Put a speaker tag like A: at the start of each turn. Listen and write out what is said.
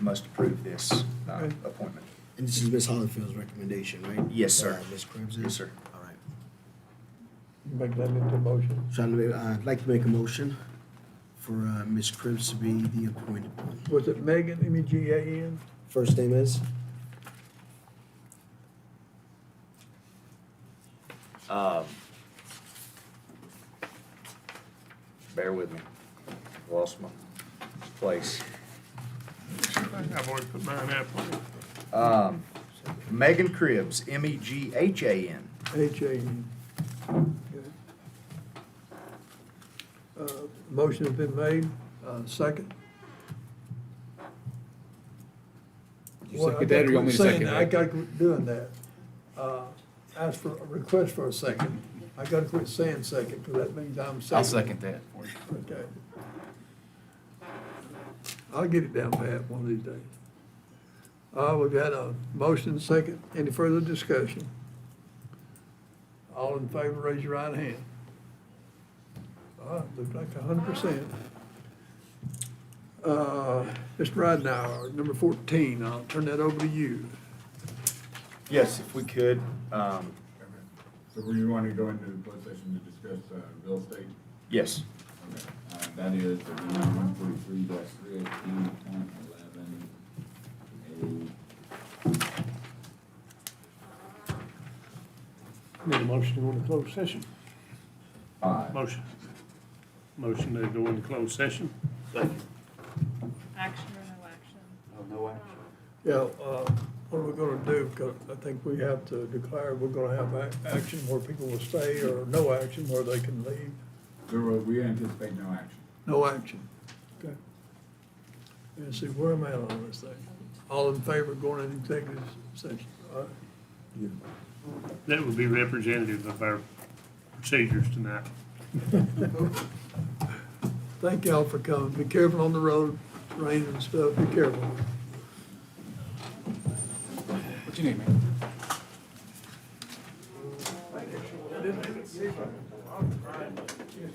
A: must approve this uh,
B: Okay.
A: appointment.
B: And this is Ms. Hollifield's recommendation, right?
A: Yes, sir.
B: Uh, Ms. Cribs?
A: Yes, sir.
B: All right.
C: Make that into a motion.
B: So I'd ma- uh, I'd like to make a motion for uh, Ms. Cribs to be the appointed one.
C: Was it Megan, E M-E-G-A-N?
B: First name is?
A: Um, Bear with me. Lost my place.
D: I've already put mine up.
A: Um, Megan E Cribs, M-E-G-H-A-N.
C: H-A-N. Okay. Uh, Motion has been made, Uh, second.
E: You
C: Well, I
E: second that, or you want me to
C: got-
E: second
C: saying,
E: that?
C: I got to quit doing that. Uh, Ask for, a request for a second. I got to quit saying second, because that means I'm second.
E: I'll second that. for you.
C: Okay. I'll get it down pat one of these days. Uh, we've had a motion, second, any further discussion? All in favor, raise your right hand. Ah, looked like a hundred percent. Uh, Mr. Ridenhour, number fourteen, I'll turn that over to you.
A: Yes, if we could, um,
F: So we want to go into the closed session to discuss uh, real estate?
A: yes,
F: Okay. Uh, That is Atlanta one forty-three dash three eighteen point eleven
G: Need a motion to go into closed session?
F: A five.
G: Motion. Motion to go into closed session?
H: Action or no action?
G: No action.
C: Yeah, uh, what are we gonna do? 'Cause I think we have to declare we're gonna have ac- action where people will stay or no action where they can leave.
F: There will, uh, we anticipate no action.
C: No action. Okay. And see, where am I on this thing? All in favor of going into executive session? All right.
G: That would be representative of our procedures tonight.
C: Thank y'all for coming. Be careful on the road, rain and stuff, be careful.
E: What you need, man?